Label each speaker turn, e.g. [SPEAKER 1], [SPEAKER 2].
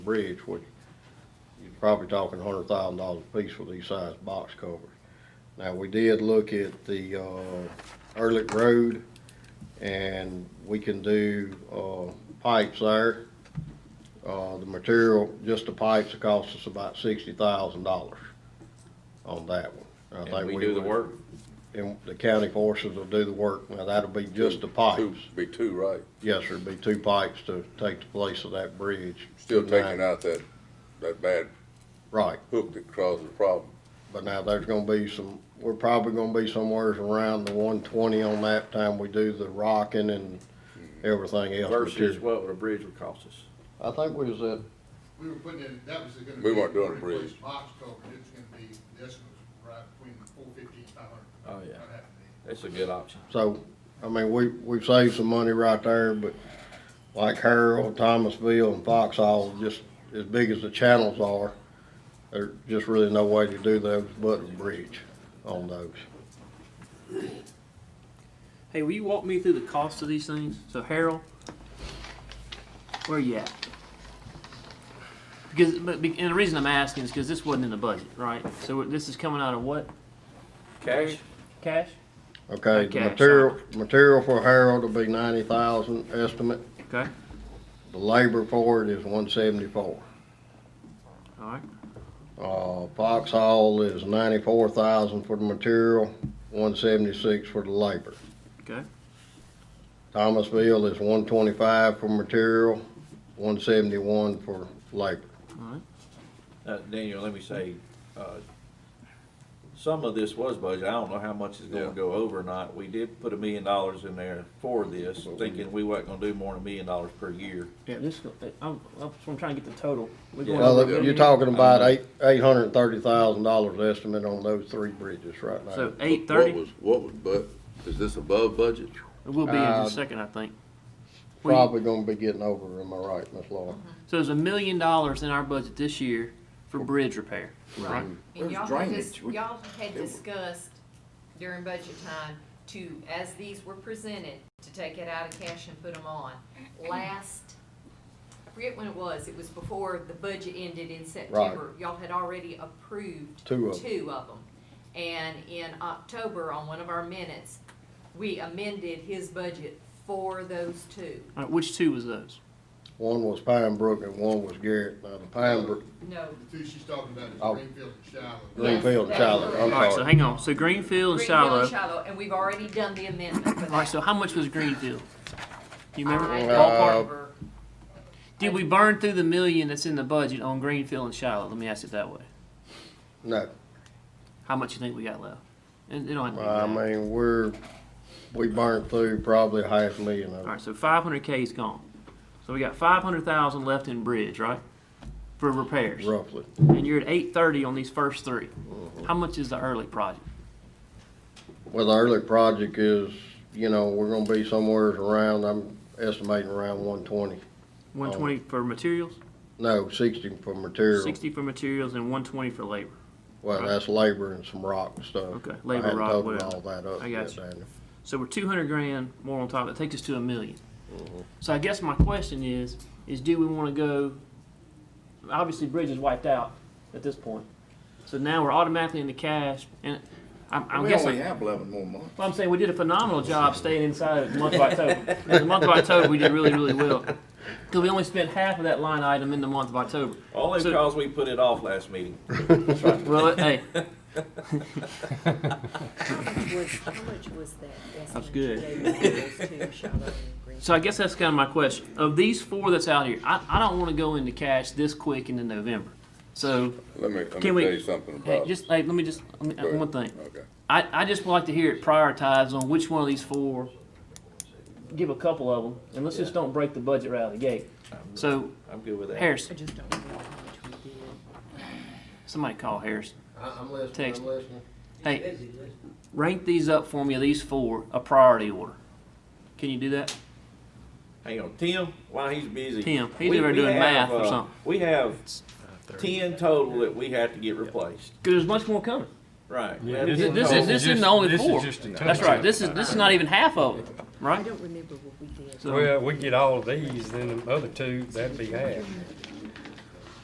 [SPEAKER 1] bridge, which you're probably talking a hundred thousand dollars a piece for these size box covers. Now, we did look at the, uh, Ehrlich Road, and we can do, uh, pipes there. Uh, the material, just the pipes, it costs us about sixty thousand dollars on that one. I
[SPEAKER 2] And
[SPEAKER 1] think
[SPEAKER 2] we do the
[SPEAKER 1] would-
[SPEAKER 2] work?
[SPEAKER 1] And the county forces will do the work, now that'll be just the pipes.
[SPEAKER 3] Two- Be two, right?
[SPEAKER 1] Yes, there'd be two pipes to take the place of that bridge.
[SPEAKER 3] Still taking out that, that bad
[SPEAKER 1] Right,
[SPEAKER 3] hook that caused the problem.
[SPEAKER 1] but now there's gonna be some, we're probably gonna be somewheres around the one twenty on that time we do the rocking and everything else.
[SPEAKER 2] Versus
[SPEAKER 1] material.
[SPEAKER 2] what would a bridge would cost us?
[SPEAKER 1] I think we was at,
[SPEAKER 4] We were putting in, that was gonna be.
[SPEAKER 3] We weren't doing a
[SPEAKER 4] replace
[SPEAKER 3] bridge.
[SPEAKER 4] Box culvert, it's gonna be, this was right between four fifteen, five
[SPEAKER 2] Oh,
[SPEAKER 4] hundred.
[SPEAKER 2] yeah. That's a good option.
[SPEAKER 1] so, I mean, we, we've saved some money right there, but like Harold, Thomasville and Foxhall, just as big as the channels are, there's just really no way to do those but a bridge on those.
[SPEAKER 5] Hey, will you walk me through the cost of these things? So Harold, where you at? Because, but, be- and the reason I'm asking is because this wasn't in the budget, right? So this is coming out of what?
[SPEAKER 2] Cash?
[SPEAKER 5] Cash?
[SPEAKER 1] Okay, the
[SPEAKER 5] Okay, so-
[SPEAKER 1] material, material for Harold will be ninety thousand estimate.
[SPEAKER 5] Okay,
[SPEAKER 1] The labor for it is one seventy-four.
[SPEAKER 5] all right.
[SPEAKER 1] Uh, Fox Hall is ninety-four thousand for the material, one seventy-six for the labor.
[SPEAKER 5] Okay.
[SPEAKER 1] Thomasville is one twenty-five for material, one seventy-one for labor.
[SPEAKER 2] Uh, Daniel, let me say, uh, some of this was budget. I don't know how much is gonna
[SPEAKER 3] Yeah.
[SPEAKER 2] go over or not. We did put a million dollars in there for this, thinking we wasn't gonna do more than a million dollars per year.
[SPEAKER 5] Yeah, this, go- I'm, I'm- I'm trying to get the total. We're
[SPEAKER 2] Yeah.
[SPEAKER 5] going
[SPEAKER 1] Well,
[SPEAKER 5] over-
[SPEAKER 1] you're talking
[SPEAKER 5] um,
[SPEAKER 1] about eight, eight hundred and thirty thousand dollars estimate on those three bridges right now.
[SPEAKER 5] So eight
[SPEAKER 3] What
[SPEAKER 5] thirty,
[SPEAKER 3] was, what was, but, is this above budget?
[SPEAKER 5] we'll be in
[SPEAKER 1] Uh,
[SPEAKER 5] just a second, I think. We-
[SPEAKER 1] Probably gonna be getting over, am I right, Miss Laura?
[SPEAKER 5] So there's a million dollars in our budget this year for bridge repair, right?
[SPEAKER 6] And
[SPEAKER 7] There's
[SPEAKER 6] y'all had dis-
[SPEAKER 7] drainage. We-
[SPEAKER 6] y'all had discussed during budget time to, as these were presented, to take it out of cash and put them on. Last, I forget when it was, it was before the budget ended in September. Y'all had already approved
[SPEAKER 1] Two of 'em.
[SPEAKER 6] them. And in October, on one of our minutes, we amended his budget for those two.
[SPEAKER 5] All right, which two was those?
[SPEAKER 1] One was Pine Brook and one was Garrett. Now, the Pine Brook,
[SPEAKER 6] No,
[SPEAKER 4] The two she's talking about
[SPEAKER 1] Oh.
[SPEAKER 4] is Greenfield and Shiloh.
[SPEAKER 1] Greenfield and
[SPEAKER 6] Yes,
[SPEAKER 1] Shiloh,
[SPEAKER 6] that's
[SPEAKER 1] I'm
[SPEAKER 5] All right, so
[SPEAKER 1] sorry.
[SPEAKER 5] hang on. So Greenfield and
[SPEAKER 6] Greenfield
[SPEAKER 5] Shiloh.
[SPEAKER 6] and Shiloh, and we've already done the amendment for
[SPEAKER 5] All right,
[SPEAKER 6] that.
[SPEAKER 5] so how much was Greenfield? You remember?
[SPEAKER 6] I
[SPEAKER 5] Ballpark?
[SPEAKER 1] Uh,
[SPEAKER 6] remember.
[SPEAKER 5] Did we burn through the million that's in the budget on Greenfield and Shiloh? Let me ask it that way.
[SPEAKER 1] No,
[SPEAKER 5] How much you think we got left? And it don't have to be
[SPEAKER 1] I
[SPEAKER 5] that.
[SPEAKER 1] mean, we're, we burned through probably half a million of
[SPEAKER 5] All
[SPEAKER 1] it.
[SPEAKER 5] right, so 500K is gone. So we got 500,000 left in bridge, right? For repairs.
[SPEAKER 1] roughly.
[SPEAKER 5] And you're at 830 on these first three.
[SPEAKER 1] Mm-hmm.
[SPEAKER 5] How much is the early project?
[SPEAKER 1] Well, the early project is, you know, we're gonna be somewhere around, I'm estimating around one twenty.
[SPEAKER 5] 120 for materials,
[SPEAKER 1] No, sixty for Um, material.
[SPEAKER 5] 60 for materials, and 120 for labor.
[SPEAKER 1] Well, that's labor and some rock and stuff.
[SPEAKER 5] Okay,
[SPEAKER 1] I
[SPEAKER 5] labor,
[SPEAKER 1] hadn't
[SPEAKER 5] rock,
[SPEAKER 1] totaled
[SPEAKER 5] whatever.
[SPEAKER 1] All that up
[SPEAKER 5] I
[SPEAKER 1] yet,
[SPEAKER 5] got you.
[SPEAKER 1] Daniel.
[SPEAKER 5] So we're two hundred grand more on top. That takes us to a 1000000 So I guess my question is, is do we want to go? Obviously, bridge is wiped out at this point. So now we're automatically in the cash, and I'm, I'm
[SPEAKER 7] We
[SPEAKER 5] guessing.
[SPEAKER 7] only have eleven more months.
[SPEAKER 5] Well, I'm saying we did a phenomenal job staying inside of the month of October. In the month of October, we did really, really well because we only spent half of that line item in the month of October.
[SPEAKER 2] Only
[SPEAKER 5] So-
[SPEAKER 2] because we put it off last meeting.
[SPEAKER 5] Well, it- hey,
[SPEAKER 8] was, how much was that?
[SPEAKER 5] That's
[SPEAKER 8] estimate
[SPEAKER 5] good.
[SPEAKER 8] you gave for those two Shiloh and Green?
[SPEAKER 5] so I guess that's kind of my question. Of these four that's out here, I, I don't want to go into cash this quick into November. So
[SPEAKER 3] Let me, let me
[SPEAKER 5] Can
[SPEAKER 3] tell
[SPEAKER 5] we-
[SPEAKER 3] you something
[SPEAKER 5] Hey,
[SPEAKER 3] about.
[SPEAKER 5] just, hey, let me just, let
[SPEAKER 3] Go
[SPEAKER 5] me,
[SPEAKER 3] ahead.
[SPEAKER 5] one thing.
[SPEAKER 3] Okay.
[SPEAKER 5] I, I just would like to hear it prioritized on which one of these four, give a couple of them, and let's just don't break the budget right out of the gate. So,
[SPEAKER 2] I'm good with that.
[SPEAKER 5] Harrison,
[SPEAKER 8] I just don't remember how much we did.
[SPEAKER 5] somebody call Harrison.
[SPEAKER 1] I'm
[SPEAKER 5] Text.
[SPEAKER 1] listening,
[SPEAKER 5] I'm
[SPEAKER 1] I'm listening.
[SPEAKER 5] Hey, rank these up for me, these four, a priority order. Can you do that?
[SPEAKER 2] Hang on, Tim, while he's busy.
[SPEAKER 5] Tim, he's
[SPEAKER 2] we-
[SPEAKER 5] over
[SPEAKER 2] we
[SPEAKER 5] doing
[SPEAKER 2] have,
[SPEAKER 5] math or
[SPEAKER 2] uh,
[SPEAKER 5] something.
[SPEAKER 2] We have ten total that we have to get replaced.
[SPEAKER 5] Cause there's much more coming.
[SPEAKER 2] Right.
[SPEAKER 9] Yeah,
[SPEAKER 5] This,
[SPEAKER 9] This is
[SPEAKER 5] this
[SPEAKER 9] all-
[SPEAKER 5] is, this isn't the only
[SPEAKER 9] this is
[SPEAKER 5] four.
[SPEAKER 9] just a
[SPEAKER 5] That's right, this is, this is not even half of it,
[SPEAKER 8] I
[SPEAKER 5] right?
[SPEAKER 8] don't remember what we did.
[SPEAKER 5] So,
[SPEAKER 9] Well, we get all of these, then the other two, that'd be half.